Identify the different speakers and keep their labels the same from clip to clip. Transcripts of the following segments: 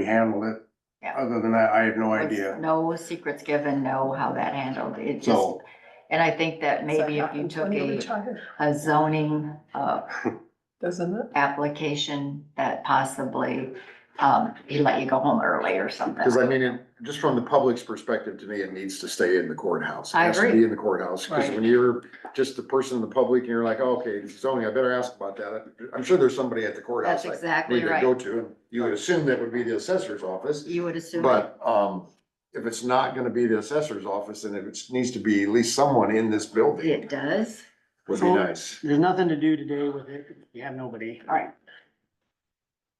Speaker 1: we handled it.
Speaker 2: Yeah.
Speaker 1: Other than that, I have no idea.
Speaker 2: No secrets given, no how that handled, it just,
Speaker 1: So,
Speaker 2: and I think that maybe if you took a, a zoning, uh,
Speaker 3: Doesn't it?
Speaker 2: application that possibly, um, he let you go home early or something.
Speaker 4: Cause I mean, it- just from the public's perspective, to me, it needs to stay in the courthouse. It
Speaker 2: I
Speaker 4: has to
Speaker 2: agree.
Speaker 4: Be in the courthouse, cause
Speaker 2: Right.
Speaker 4: when you're just the person in the public and you're like, "Oh, okay, zoning, I better ask about that. I'm sure there's somebody at the courthouse
Speaker 2: That's
Speaker 4: I
Speaker 2: exactly
Speaker 4: need to go
Speaker 2: right.
Speaker 4: to. and You would assume that would be the assessor's office,
Speaker 2: You would assume.
Speaker 4: but, um, if it's not gonna be the assessor's office, then it needs to be at least someone in this building
Speaker 2: It does.
Speaker 4: would be nice.
Speaker 5: There's nothing to do today with it. You have nobody.
Speaker 2: All right.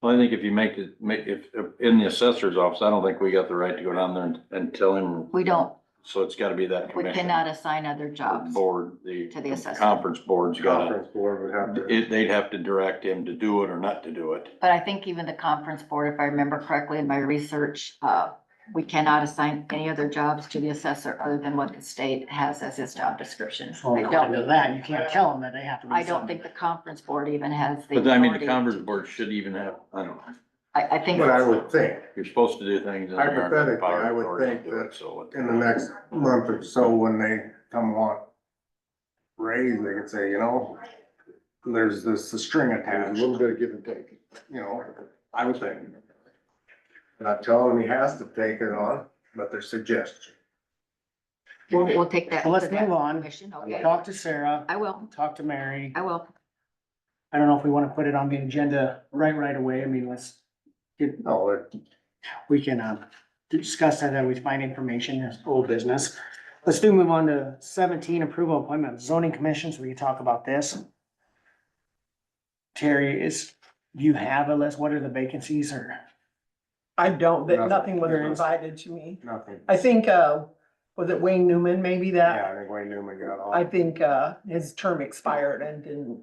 Speaker 6: Well, I think if you make it, make, if, if- in the assessor's office, I don't think we got the right to go down there and, and tell him,
Speaker 2: We don't,
Speaker 6: so it's gotta be that
Speaker 2: we
Speaker 6: commission.
Speaker 2: cannot assign other
Speaker 6: The
Speaker 2: jobs.
Speaker 6: Board, the.
Speaker 2: to the assessor.
Speaker 6: Conference board's gotta,
Speaker 1: conference board would have to,
Speaker 6: it, they'd have to direct him to do it or not to do it.
Speaker 2: But I think even the conference board, if I remember correctly in my research, uh, we cannot assign any other jobs to the assessor other than what the state has as his job description.
Speaker 5: So
Speaker 2: I
Speaker 5: according to
Speaker 2: don't,
Speaker 5: that, you can't tell them that they have to. do
Speaker 2: I don't
Speaker 5: something.
Speaker 2: think the conference board even has the.
Speaker 6: But I mean, the
Speaker 2: authority
Speaker 6: conference
Speaker 2: to-
Speaker 6: board should even have, I don't know,
Speaker 2: I, I think.
Speaker 1: but I would think
Speaker 6: you're supposed to do things. in the American
Speaker 1: Hypothetically,
Speaker 6: Power
Speaker 1: I would
Speaker 6: Authority
Speaker 1: think
Speaker 6: to do it,
Speaker 1: that
Speaker 6: So. it-
Speaker 1: in the next month or so, when they come on raise, they could say, you know, there's this string
Speaker 4: A
Speaker 1: attached,
Speaker 4: little
Speaker 1: you
Speaker 4: bit of give and take.
Speaker 1: know, I would think. Not telling him he has to take it on, but their suggestion.
Speaker 2: We'll, we'll take that.
Speaker 5: So let's
Speaker 2: to that
Speaker 5: move on.
Speaker 2: Commission, okay.
Speaker 5: Talk to Sarah,
Speaker 2: I will,
Speaker 5: talk to Mary.
Speaker 2: I will.
Speaker 5: I don't know if we want to put it on the agenda right, right away. I mean, let's,
Speaker 1: No, it-
Speaker 5: we can, uh, discuss that, that we find information, it's old business. Let's do move on to seventeen, approval of appointment of zoning commissions, we can talk about this. Terry, is, do you have a list? What are the vacancies or?
Speaker 3: I don't, that
Speaker 1: Nothing.
Speaker 3: nothing was
Speaker 1: Nothing.
Speaker 3: provided to me.
Speaker 1: nothing.
Speaker 3: I think, uh, was it Wayne Newman, maybe that?
Speaker 1: Yeah, I think Wayne Newman got all.
Speaker 3: I think, uh, his term expired and didn't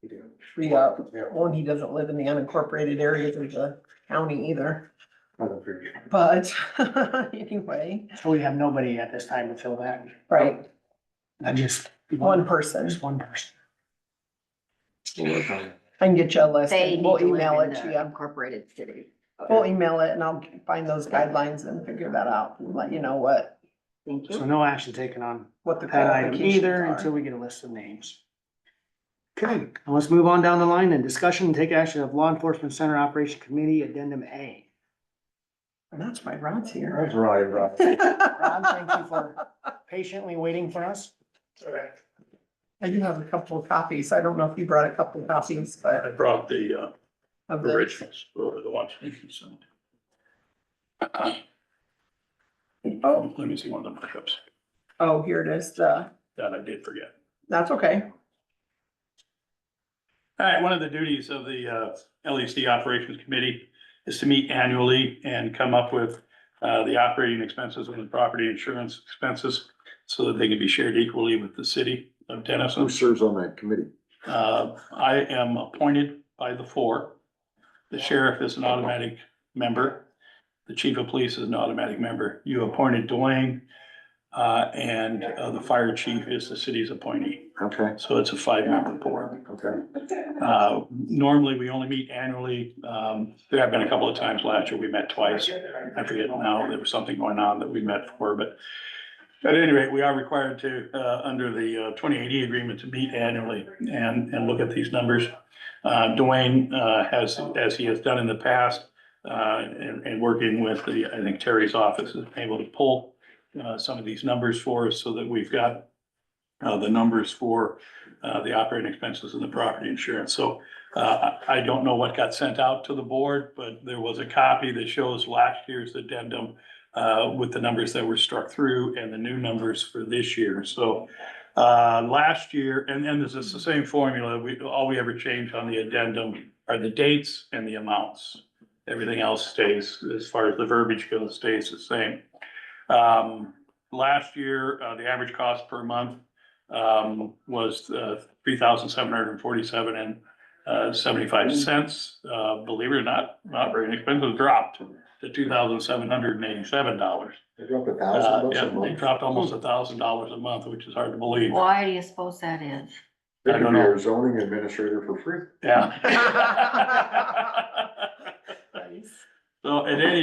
Speaker 1: he did.
Speaker 3: re-up.
Speaker 1: Yeah,
Speaker 3: Well, and he doesn't live in the unincorporated areas of the county either,
Speaker 1: I don't figure.
Speaker 3: but anyway,
Speaker 5: So we have nobody at this time to fill that.
Speaker 3: right,
Speaker 5: I just.
Speaker 3: one person.
Speaker 5: Just one person.
Speaker 3: I can get you a list
Speaker 2: They
Speaker 3: and
Speaker 2: need
Speaker 3: we'll
Speaker 2: to
Speaker 3: email
Speaker 2: live in
Speaker 3: it to
Speaker 2: the
Speaker 3: you.
Speaker 2: incorporated city.
Speaker 3: We'll email it and I'll find those guidelines and figure that out and let you know what,
Speaker 2: Thank
Speaker 5: So
Speaker 2: you.
Speaker 5: no action taken on
Speaker 3: what the
Speaker 5: that item
Speaker 3: qualifications
Speaker 5: either
Speaker 3: are.
Speaker 5: until we get a list of names. Okay, and let's move on down the line and discussion and take action of Law Enforcement Center Operation Committee Addendum A.
Speaker 3: And that's why Rod's here.
Speaker 1: That's right, right.
Speaker 5: Ron, thank you for patiently waiting for us.
Speaker 3: I do have a couple of copies. I don't know if you brought a couple of copies, but
Speaker 7: I brought the uh,
Speaker 3: of the,
Speaker 7: originals, uh, the ones you sent. Um, Let me see one of the markups
Speaker 3: oh, here it is, the,
Speaker 7: that I did forget.
Speaker 3: that's okay.
Speaker 7: All right, one of the duties of the uh, LEC Operations Committee is to meet annually and come up with uh, the operating expenses and the property insurance expenses so that they can be shared equally with the city of Denison.
Speaker 4: Who serves on that committee?
Speaker 7: Uh, I am appointed by the four. The sheriff is an automatic member. The chief of police is an automatic member. You appointed Dwayne. Uh, and uh, the fire chief is the city's appointee.
Speaker 4: Okay,
Speaker 7: So it's a five-member board.
Speaker 4: okay.
Speaker 7: Uh, normally, we only meet annually. Um, there have been a couple of times last year, we met twice. I forget now, there was something going on that we met for, but at any rate, we are required to, uh, under the twenty eighty agreement to meet annually and, and look at these numbers. Uh, Dwayne, uh, has, as he has done in the past, uh, and, and working with the, I think Terry's office is able to pull, uh, some of these numbers for us so that we've got, uh, the numbers for, uh, the operating expenses and the property insurance. So, uh, I I don't know what got sent out to the board, but there was a copy that shows last year's addendum uh, with the numbers that were struck through and the new numbers for this year. So uh, last year, and, and this is the same formula, we, all we ever change on the addendum are the dates and the amounts. Everything else stays, as far as the verbiage goes, stays the same. Um, Last year, uh, the average cost per month um, was three thousand seven hundred and forty-seven and uh, seventy-five cents. Uh, believe it or not, operating expenses dropped to two thousand seven hundred and eighty-seven dollars.
Speaker 4: They dropped a
Speaker 7: Uh,
Speaker 4: thousand bucks
Speaker 7: yeah,
Speaker 4: a
Speaker 7: they
Speaker 4: month.
Speaker 7: dropped almost a thousand dollars a month, which is hard to believe.
Speaker 2: Why do you suppose that is?
Speaker 4: They
Speaker 7: I don't
Speaker 4: could be
Speaker 7: know.
Speaker 4: our zoning administrator for free.
Speaker 7: Yeah. So at any